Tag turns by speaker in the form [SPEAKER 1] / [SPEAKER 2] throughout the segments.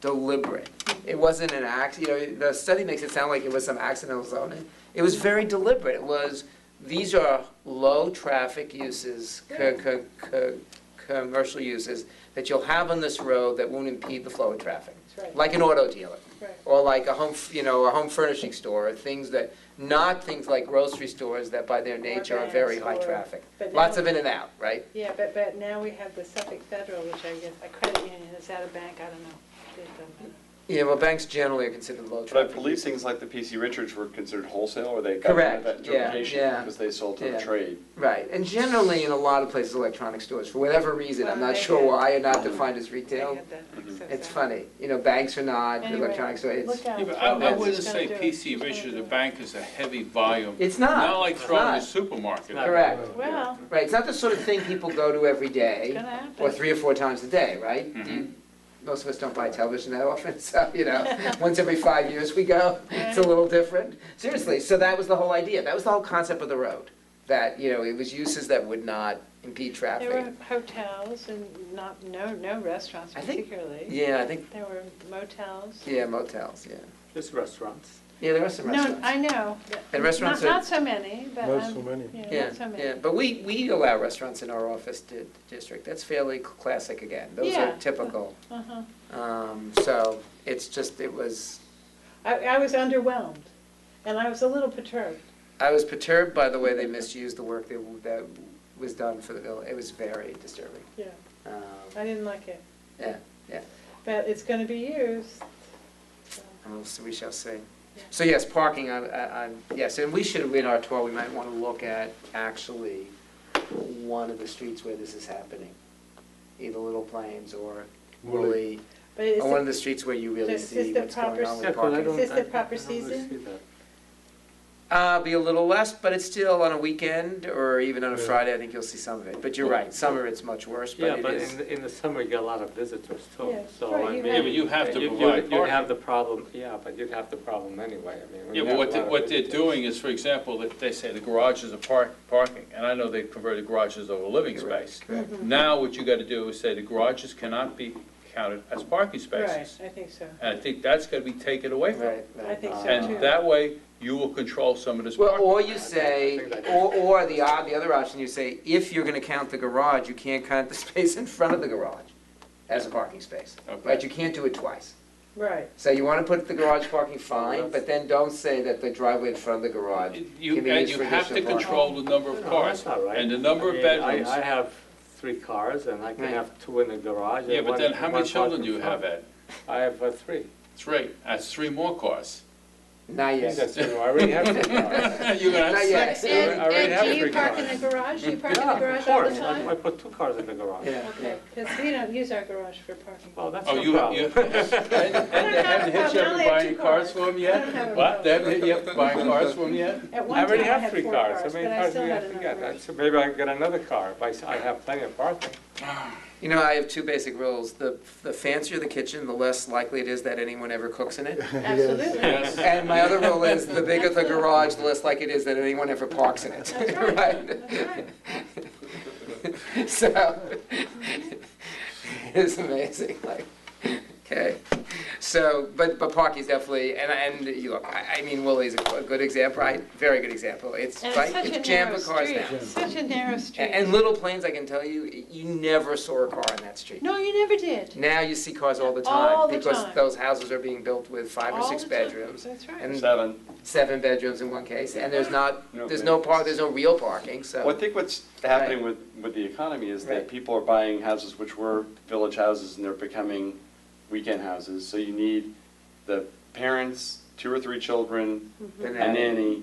[SPEAKER 1] deliberate. It wasn't an act, you know, the study makes it sound like it was some accidental zoning. It was very deliberate. It was, these are low-traffic uses, co- co- co- commercial uses that you'll have on this road that won't impede the flow of traffic.
[SPEAKER 2] That's right,
[SPEAKER 1] Like an auto dealer,
[SPEAKER 2] right.
[SPEAKER 1] or like a home, f- you know, a home furnishing store, or things that, not things like grocery stores that by their nature are very high
[SPEAKER 2] banks or-
[SPEAKER 1] traffic.
[SPEAKER 2] But
[SPEAKER 1] Lots
[SPEAKER 2] now-
[SPEAKER 1] of in and out, right?
[SPEAKER 2] Yeah, but, but now we have the Suffolk Federal, which I guess, a credit union, is that a bank? I don't know. um, It doesn't matter.
[SPEAKER 1] Yeah, well, banks generally are considered low
[SPEAKER 3] But I
[SPEAKER 1] traffic.
[SPEAKER 3] believe things like the PC Richards were considered wholesale, or they got rid
[SPEAKER 1] Correct,
[SPEAKER 3] of that
[SPEAKER 1] yeah,
[SPEAKER 3] interpretation
[SPEAKER 1] yeah,
[SPEAKER 3] because they sold to
[SPEAKER 1] yeah.
[SPEAKER 3] the trade.
[SPEAKER 1] Right, and generally in a lot of places, electronic stores, for whatever reason, I'm not sure why, are not defined as
[SPEAKER 2] I
[SPEAKER 1] retail.
[SPEAKER 2] had that
[SPEAKER 3] Mhm.
[SPEAKER 2] mixed up
[SPEAKER 1] It's
[SPEAKER 2] there.
[SPEAKER 1] funny, you know, banks are not,
[SPEAKER 2] Anyway,
[SPEAKER 1] electronic store, it's,
[SPEAKER 2] look out.
[SPEAKER 4] Yeah, but I, I
[SPEAKER 1] That's-
[SPEAKER 4] wouldn't
[SPEAKER 2] It's
[SPEAKER 4] say
[SPEAKER 2] gonna do it.
[SPEAKER 4] PC
[SPEAKER 2] It's gonna
[SPEAKER 4] Richards,
[SPEAKER 2] do
[SPEAKER 4] the
[SPEAKER 2] it.
[SPEAKER 4] bank is a heavy volume,
[SPEAKER 1] it's not.
[SPEAKER 4] not like
[SPEAKER 1] It's
[SPEAKER 4] throwing the
[SPEAKER 1] not.
[SPEAKER 4] supermarket.
[SPEAKER 1] Correct,
[SPEAKER 2] Well,
[SPEAKER 1] right, it's not the sort of thing people go to every
[SPEAKER 2] it's
[SPEAKER 1] day,
[SPEAKER 2] gonna happen.
[SPEAKER 1] or three or four times a day, right?
[SPEAKER 4] Mm-hmm.
[SPEAKER 1] Do you- Most of us don't buy television that often, so, you know, once every five years we go, it's a little different. Seriously, so that was the whole idea, that was the whole concept of the road, that, you know, it was uses that would not impede traffic.
[SPEAKER 2] There were hotels and not, no, no restaurants
[SPEAKER 1] I think-
[SPEAKER 2] particularly.
[SPEAKER 1] Yeah, I think,
[SPEAKER 2] There were motels.
[SPEAKER 1] yeah, motels, yeah.
[SPEAKER 5] Just restaurants.
[SPEAKER 1] Yeah, there are some
[SPEAKER 2] No,
[SPEAKER 1] restaurants.
[SPEAKER 2] I know. but
[SPEAKER 1] And restaurants
[SPEAKER 2] Not,
[SPEAKER 1] are-
[SPEAKER 2] not so many, but,
[SPEAKER 6] Not so
[SPEAKER 2] um,
[SPEAKER 6] many.
[SPEAKER 2] you know,
[SPEAKER 1] Yeah,
[SPEAKER 2] not so many.
[SPEAKER 1] yeah, but we, we allow restaurants in our office di- district, that's fairly classic again, those are
[SPEAKER 2] Yeah.
[SPEAKER 1] typical.
[SPEAKER 2] Uh-huh.
[SPEAKER 1] Um, so, it's just, it was,
[SPEAKER 2] I, I was underwhelmed, and I was a little perturbed.
[SPEAKER 1] I was perturbed by the way they misused the work that, w- that was done for the village, it was very disturbing.
[SPEAKER 2] Yeah,
[SPEAKER 1] Um,
[SPEAKER 2] I didn't like it.
[SPEAKER 1] Yeah, yeah.
[SPEAKER 2] But it's gonna be used. so.
[SPEAKER 1] and we'll see- we shall see.
[SPEAKER 2] Yeah.
[SPEAKER 1] So yes, parking, I, I, I- yes, and we should, in our tour, we might wanna look at actually one of the streets where this is happening, either Little Plains or
[SPEAKER 6] Woolly.
[SPEAKER 1] Woolly.
[SPEAKER 2] But it's,
[SPEAKER 1] Or one of the streets where you really
[SPEAKER 2] This
[SPEAKER 1] see
[SPEAKER 2] is the
[SPEAKER 1] what's going
[SPEAKER 2] proper
[SPEAKER 1] on
[SPEAKER 2] Yeah,
[SPEAKER 1] with
[SPEAKER 2] 'cause
[SPEAKER 1] parking.
[SPEAKER 2] Is this the proper season?
[SPEAKER 1] Uh, be a little less, but it's still on a weekend or even on a
[SPEAKER 6] Yeah.
[SPEAKER 1] Friday, I think you'll see some of it. But you're right, summer it's much worse,
[SPEAKER 5] Yeah,
[SPEAKER 1] but it
[SPEAKER 5] but
[SPEAKER 1] is.
[SPEAKER 5] in, the- in the summer, you get a lot of visitors too,
[SPEAKER 2] Yeah,
[SPEAKER 5] Oh, so
[SPEAKER 2] right,
[SPEAKER 5] I
[SPEAKER 2] you
[SPEAKER 5] mean.
[SPEAKER 2] have- Yeah, but
[SPEAKER 4] you have to
[SPEAKER 5] you'd-
[SPEAKER 4] provide
[SPEAKER 5] you'd- You'd have
[SPEAKER 4] parking.
[SPEAKER 5] the problem, yeah, but you'd have the problem anyway, I mean. when
[SPEAKER 4] Yeah,
[SPEAKER 5] you
[SPEAKER 4] but
[SPEAKER 5] have
[SPEAKER 4] what,
[SPEAKER 5] a
[SPEAKER 4] they-
[SPEAKER 5] lot of
[SPEAKER 4] what they're
[SPEAKER 5] visitors.
[SPEAKER 4] doing is, for example, that they say the garages are park, parking, and I know they've converted garages over living
[SPEAKER 1] Correct,
[SPEAKER 4] space.
[SPEAKER 1] correct.
[SPEAKER 4] Now, what you gotta do is say the garages cannot be counted as parking
[SPEAKER 2] right,
[SPEAKER 4] spaces.
[SPEAKER 2] I think so.
[SPEAKER 4] And I think that's gotta be taken away from them.
[SPEAKER 1] Right,
[SPEAKER 2] I
[SPEAKER 1] right.
[SPEAKER 2] think so too.
[SPEAKER 4] And that way, you will control some of this
[SPEAKER 1] Well,
[SPEAKER 4] parking.
[SPEAKER 1] or you say, or, or the, o- the other option, you say, if you're gonna count the garage, you can't count the space in front of the garage as a parking space.
[SPEAKER 4] Okay.
[SPEAKER 1] Right, you can't do it twice.
[SPEAKER 2] Right,
[SPEAKER 1] So you wanna put the garage parking fine, but then don't say that the driveway in front of the garage
[SPEAKER 4] You,
[SPEAKER 1] can be
[SPEAKER 4] and
[SPEAKER 1] used
[SPEAKER 4] you
[SPEAKER 1] for
[SPEAKER 4] have to
[SPEAKER 1] additional parking.
[SPEAKER 4] control the number of
[SPEAKER 5] No,
[SPEAKER 4] cars
[SPEAKER 5] that's all right.
[SPEAKER 4] and the number
[SPEAKER 5] I
[SPEAKER 4] of
[SPEAKER 5] mean, I-
[SPEAKER 4] bedrooms.
[SPEAKER 5] I have three cars and I can
[SPEAKER 1] Right.
[SPEAKER 5] have two in the garage. and
[SPEAKER 4] Yeah, but
[SPEAKER 5] one-
[SPEAKER 4] then how
[SPEAKER 5] one
[SPEAKER 4] many
[SPEAKER 5] parked
[SPEAKER 4] children
[SPEAKER 5] in
[SPEAKER 4] do you have,
[SPEAKER 5] front.
[SPEAKER 4] Ed?
[SPEAKER 5] I have uh, three.
[SPEAKER 4] Three, that's three more cars.
[SPEAKER 1] Not yet.
[SPEAKER 5] That's, you know, I already have three cars.
[SPEAKER 4] You're gonna have
[SPEAKER 1] Not yet.
[SPEAKER 4] six.
[SPEAKER 1] So
[SPEAKER 2] And,
[SPEAKER 5] I already have
[SPEAKER 2] and do you
[SPEAKER 5] three
[SPEAKER 2] park in
[SPEAKER 5] cars.
[SPEAKER 2] the garage? You park in the
[SPEAKER 5] Yeah, of
[SPEAKER 2] garage all the
[SPEAKER 5] course,
[SPEAKER 2] time?
[SPEAKER 5] I I put two cars in the garage.
[SPEAKER 1] Yeah, yeah.
[SPEAKER 2] Okay, because we don't use our garage for parking.
[SPEAKER 5] Well, that's
[SPEAKER 4] Oh,
[SPEAKER 5] no
[SPEAKER 4] you, you,
[SPEAKER 5] problem.
[SPEAKER 4] and and they haven't hit you up
[SPEAKER 2] Only have
[SPEAKER 4] for buying
[SPEAKER 2] two cars.
[SPEAKER 4] cars for
[SPEAKER 2] I
[SPEAKER 4] them
[SPEAKER 2] don't
[SPEAKER 4] yet?
[SPEAKER 2] have
[SPEAKER 4] What,
[SPEAKER 2] a
[SPEAKER 4] they haven't hit you up for buying cars for them yet?
[SPEAKER 2] At one
[SPEAKER 5] I
[SPEAKER 2] time,
[SPEAKER 5] already
[SPEAKER 2] I
[SPEAKER 5] have
[SPEAKER 2] had
[SPEAKER 5] three
[SPEAKER 2] four
[SPEAKER 5] cars,
[SPEAKER 2] cars,
[SPEAKER 5] how
[SPEAKER 2] but
[SPEAKER 5] many
[SPEAKER 2] I
[SPEAKER 5] cars do
[SPEAKER 2] still
[SPEAKER 5] you
[SPEAKER 2] had
[SPEAKER 5] have to
[SPEAKER 2] enough
[SPEAKER 5] get?
[SPEAKER 2] garage.
[SPEAKER 5] That's- Maybe I can get another car, but I s- I have plenty of parking.
[SPEAKER 1] You know, I have two basic rules. The, the fancier the kitchen, the less likely it is that anyone ever cooks in it.
[SPEAKER 2] Absolutely.
[SPEAKER 4] Yes.
[SPEAKER 1] And my other rule is the bigger the garage, the less likely it is that anyone ever parks in it.
[SPEAKER 2] That's right.
[SPEAKER 1] Right? So, it's amazing, like, okay. So, but, but parking's definitely, and, and you look, I, I mean, Willie's a good example, right? Very good example. It's,
[SPEAKER 2] And
[SPEAKER 1] right,
[SPEAKER 2] it's
[SPEAKER 1] it's
[SPEAKER 2] such a
[SPEAKER 1] jammed
[SPEAKER 2] narrow
[SPEAKER 1] with cars
[SPEAKER 2] street,
[SPEAKER 1] now.
[SPEAKER 2] It's such a narrow street.
[SPEAKER 1] And, and Little Plains, I can tell you, you never saw a car on that street.
[SPEAKER 2] No, you never did.
[SPEAKER 1] Now you see cars all the
[SPEAKER 2] All
[SPEAKER 1] time
[SPEAKER 2] the
[SPEAKER 1] because
[SPEAKER 2] time.
[SPEAKER 1] those houses are being built with five or
[SPEAKER 2] All
[SPEAKER 1] six
[SPEAKER 2] the time.
[SPEAKER 1] bedrooms
[SPEAKER 2] That's right.
[SPEAKER 1] and
[SPEAKER 3] Seven.
[SPEAKER 1] seven bedrooms in one case, and there's not,
[SPEAKER 3] No,
[SPEAKER 1] there's
[SPEAKER 3] but-
[SPEAKER 1] no par, there's no real parking,
[SPEAKER 3] Well,
[SPEAKER 1] so.
[SPEAKER 3] I think what's happening with, with the economy is
[SPEAKER 1] Right.
[SPEAKER 3] that people are buying houses which were village houses and they're becoming weekend houses. So you need the parents, two or three children,
[SPEAKER 1] the
[SPEAKER 3] a
[SPEAKER 1] nanny,
[SPEAKER 3] nanny,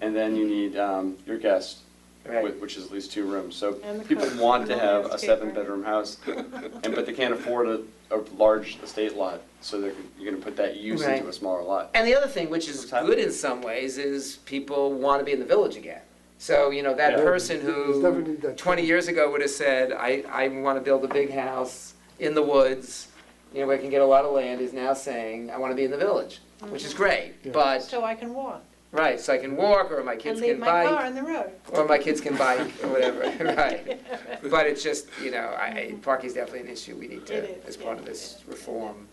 [SPEAKER 3] and then you need um, your guest,
[SPEAKER 1] Right,
[SPEAKER 3] whi- which is at least two rooms. So
[SPEAKER 2] And the
[SPEAKER 3] people
[SPEAKER 2] cook.
[SPEAKER 3] want to have a
[SPEAKER 2] Landscaper.
[SPEAKER 3] seven-bedroom house, and, but they can't afford a, a large estate lot, so they're, you're gonna put that use
[SPEAKER 1] Right.
[SPEAKER 3] into a smaller lot.
[SPEAKER 1] and the other thing, which is
[SPEAKER 3] What's that?
[SPEAKER 1] good in some ways, is people want to be in the village again. So, you know, that
[SPEAKER 3] Yeah.
[SPEAKER 1] person
[SPEAKER 6] There's definitely
[SPEAKER 1] who
[SPEAKER 6] that.
[SPEAKER 1] twenty years ago would have said, I, I want to build a big house in the woods, you know, where I can get a lot of land, is now saying, I want to be in the village, which
[SPEAKER 2] Mm-hmm.
[SPEAKER 1] is great,
[SPEAKER 6] Yeah.
[SPEAKER 1] but
[SPEAKER 2] So I can walk
[SPEAKER 1] Right, so I can walk, or my
[SPEAKER 2] and
[SPEAKER 1] kids
[SPEAKER 2] leave
[SPEAKER 1] can
[SPEAKER 2] my car
[SPEAKER 1] bike,
[SPEAKER 2] on the road.
[SPEAKER 1] or my kids can bike, or whatever, right. But it's just, you know, I, I- parking's definitely an issue we need
[SPEAKER 2] It
[SPEAKER 1] to, as
[SPEAKER 2] is,
[SPEAKER 1] part
[SPEAKER 2] yeah,
[SPEAKER 1] of this reform,